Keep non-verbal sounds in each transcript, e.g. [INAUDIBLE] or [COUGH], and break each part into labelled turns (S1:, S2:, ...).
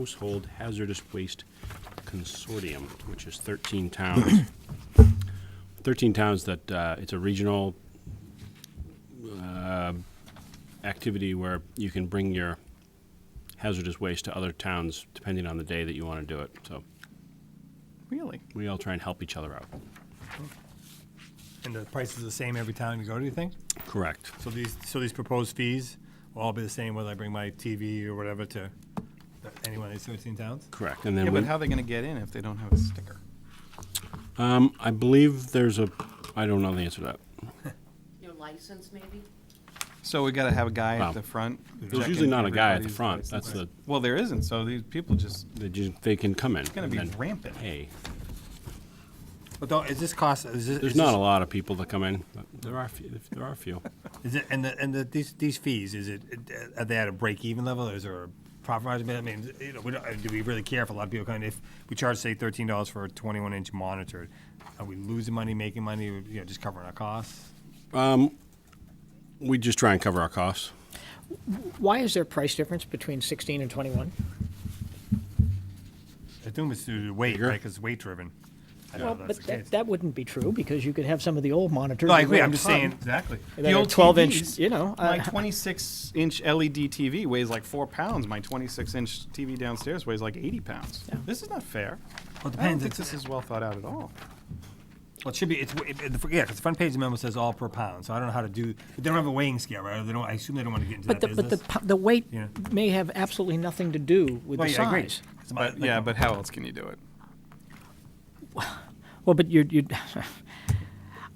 S1: Household Hazardous Waste Consortium, which is 13 towns. [COUGHS] 13 towns that, uh, it's a regional uh, activity where you can bring your hazardous waste to other towns depending on the day that you want to do it. So
S2: Really?
S1: we all try and help each other out.
S2: And the price is the same every time you go, do you think?
S1: Correct.
S2: So these, so these proposed fees will all be the same whether I bring my TV or whatever to th- any one of these 13 towns?
S1: Correct. And
S3: Yeah,
S1: then
S3: but
S1: we-
S3: how are they going to get in if they don't have a sticker?
S1: um, I believe there's a, I don't know the answer to that.
S4: Your license, maybe?
S3: So we got to have a guy
S1: Wow.
S3: at the front.
S1: There's
S3: checking
S1: usually not a guy at the
S3: everybody's
S1: front.
S3: license.
S1: That's the,
S3: Well, there isn't. So these people just
S1: they ju- they can come in. It's
S3: going to be rampant.
S1: Hey,
S2: But don't, is this cost, is this?
S1: there's
S2: is
S1: not
S2: this-
S1: a lot of people that come in, but there are, a few- there are a few.
S2: Is it, and the, and the, these, these fees, is it, are they at a break-even level, or is there a profit margin? I mean, you know, we don't, do we really care if a lot of people come, in? if we charge, say, thirteen dollars for a twenty-one inch monitor, are we losing money, making money, or, you know, just covering our costs?
S1: We just try and cover our costs.
S5: Why is there a price difference between 16 and 21?
S2: I assume it's due to weight,
S1: Bigger?
S2: right, because weight-driven. I don't know
S5: Well,
S2: if that's
S5: but
S2: the case.
S5: that, that wouldn't be true because you could have some of the old monitors.
S2: No, I
S5: that
S2: agree,
S5: weigh a
S2: I'm just
S5: ton,
S2: saying, exactly.
S5: and then a 12 inch, you know.
S3: my
S5: uh, [LAUGHS]
S3: 26 inch E LED TV weighs like four pounds. My 26 inch TV downstairs weighs like 80 pounds.
S5: Yeah.
S3: This is not fair.
S2: Well, it
S3: I don't
S2: depends.
S3: think
S2: It's-
S3: this is well thought out at all.
S2: Well, it should be, it's, it- it- yeah, because the front page of the memo says all per pound, so I don't know how to do, but they don't have a weighing scale, right? Or They don't, I assume they don't want to get into
S5: But
S2: that
S5: the, but the,
S2: business.
S5: pu- the weight
S2: Yeah.
S5: may have absolutely nothing to do with
S2: Well,
S5: the
S2: yeah, I agree.
S5: size.
S2: It's about-
S3: But
S2: like-
S3: yeah, but how else can you do it?
S5: Well, but you're, [LAUGHS] you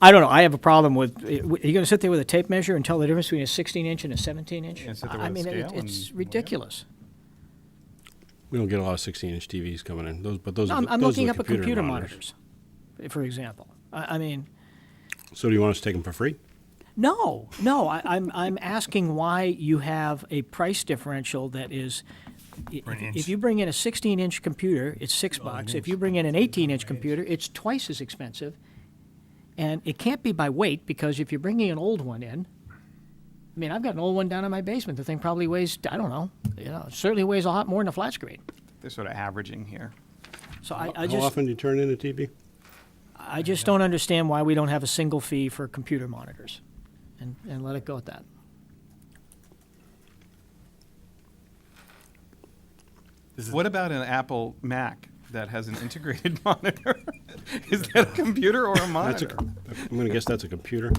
S5: I don't know, I have a problem with, are you going to sit there with a tape measure and tell the difference between a 16 inch and a 17 inch?
S3: Yeah, sit there with
S5: I
S3: a
S5: mean, it-
S3: scale
S5: it's
S3: and-
S5: ridiculous.
S1: We don't get a lot of 16-inch TVs coming in, those, but those
S5: No,
S1: are
S5: I'm,
S1: the-
S5: I'm
S1: those are
S5: looking
S1: the
S5: up at
S1: computer
S5: computer
S1: monitors.
S5: monitors, for example. I, I mean,
S1: So do you want us to take them for free?
S5: No, no, I, I'm, I'm asking why you have a price differential that is, i-
S2: For an
S5: if-
S2: inch.
S5: if you bring in a sixteen inch computer, it's six bucks. If you bring in an eighteen inch computer, it's twice as expensive. And it can't be by weight, because if you're bringing an old one in, I mean, I've got an old one down in my basement, the thing probably weighs, I don't know, you know, it certainly weighs a lot more than a flat screen.
S3: They're sort of averaging here.
S5: So I, I
S1: How
S5: just,
S1: often do you turn in a TV?
S5: I just don't understand why we don't have a single fee for computer monitors, and, and let it go at that.
S3: What about an Apple Mac that has an integrated [LAUGHS] monitor? is that a computer or a
S1: That's a,
S3: monitor?
S1: I'm gonna guess that's a computer.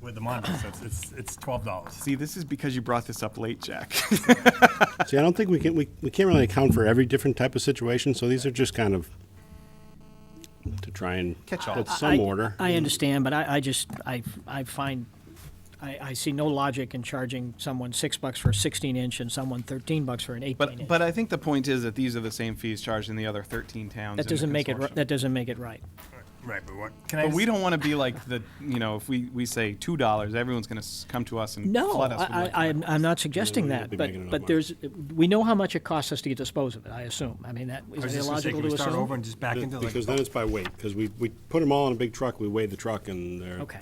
S2: With the monitors, it's, it's, it's twelve dollars.
S3: See, this is because you brought this up late, Jack. [LAUGHS]
S1: See, I don't think we can, we, we can't really account for every different type of situation, so these are just kind of to try and.
S3: Catch all.
S1: Put
S5: I-
S1: some order.
S5: I understand, but I, I just, I, I find, I, I see no logic in charging someone six bucks for a sixteen inch and someone thirteen bucks for an eighteen
S3: But
S5: inch.
S3: but I think the point is that these are the same fees charged in the other 13 towns.
S5: That
S3: in the
S5: doesn't make it, ri-
S3: consortium.
S5: that doesn't make it right.
S2: Right, but what, can I
S3: But we
S2: just-
S3: don't want to be like the you know if we, we say two dollars, everyone's going to come to us and
S5: No,
S3: flood us. with
S5: I, I,
S3: electronic-
S5: I'm, I'm not suggesting
S1: we'll
S5: that,
S1: be making
S5: but,
S1: enough
S5: but
S1: money.
S5: there's, we know how much it costs us to dispose of it, I assume. I mean, that,
S2: I was
S5: is
S2: just
S5: it
S2: gonna say,
S5: illogical
S2: can
S5: to
S2: we
S5: assume?
S2: start over and just back into like?
S1: Because then it's by weight, because we, we put them all in a big truck, we weigh the truck and they're.
S5: Okay,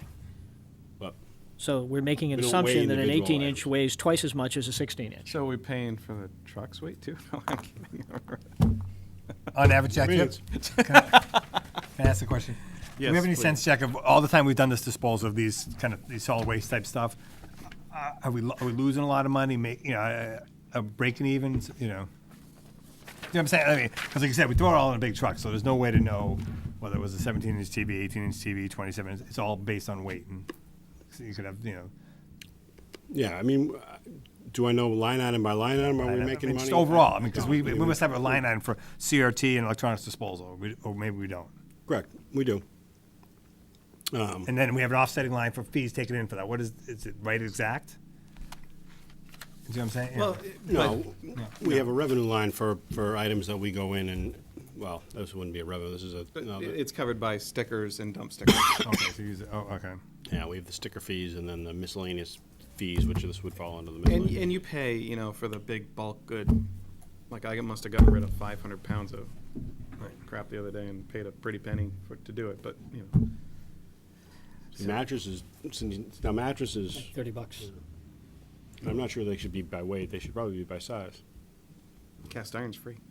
S1: But
S5: so we're making an
S1: We don't weigh
S5: assumption that an
S1: individual
S5: eighteen inch
S1: items.
S5: weighs twice as much as a sixteen inch.
S3: So we're paying for the truck's weight too. No, I'm kidding.
S2: On average, Jack, do you Oh, have-
S1: Great.
S2: [LAUGHS] can I ask
S3: [LAUGHS]
S2: a question? Do
S3: Yes,
S2: we have any
S3: please.
S2: sense, Jack, of all the time we've done this disposal of these kind of, these solid waste type stuff? uh, Are we, lo- are we losing a lot of money, make, you know, uh, uh, breaking even, you know? You know what I'm saying? I mean, because like you said, we throw it all in a big truck, so there's no way to know whether it was a 17 inch TV, 18 inch TV, 27. It's- It's all based on weight, and so you could have, you know,
S1: Yeah, I mean, uh, do I know line item by line item? Are
S2: I
S1: we
S2: don't know.
S1: making
S2: uh, I mean,
S1: money?
S2: Just overall, I mean, because
S1: No,
S2: we,
S1: I mean,
S2: we must have a line item for CRT and electronics disposal, or we- or maybe we don't.
S1: Correct, we do.
S2: And then we have an offsetting line for fees taken in for that. What is, is it right exact? You see what I'm saying? Yeah.
S3: well,
S1: No, we have a revenue line for, for items that we go in and, well, this wouldn't be a revenue, this is a,
S3: but [LAUGHS]
S1: no,
S3: it-
S1: but-
S3: it's covered by stickers and dump stickers.
S2: Okay, so use it, oh, okay.
S1: yeah, we have the sticker fees and then the miscellaneous fees, which this would fall under the
S3: and
S1: miscellaneous.
S3: and you pay you know for the big bulk good. Like I must have gotten rid of 500 pounds of crap the other day and paid a pretty penny for to do it. But you know,
S1: Mattresses, since- now mattresses,
S5: Thirty bucks.
S1: I'm not sure they should be by weight, they should probably be by size.
S3: Cast iron's free.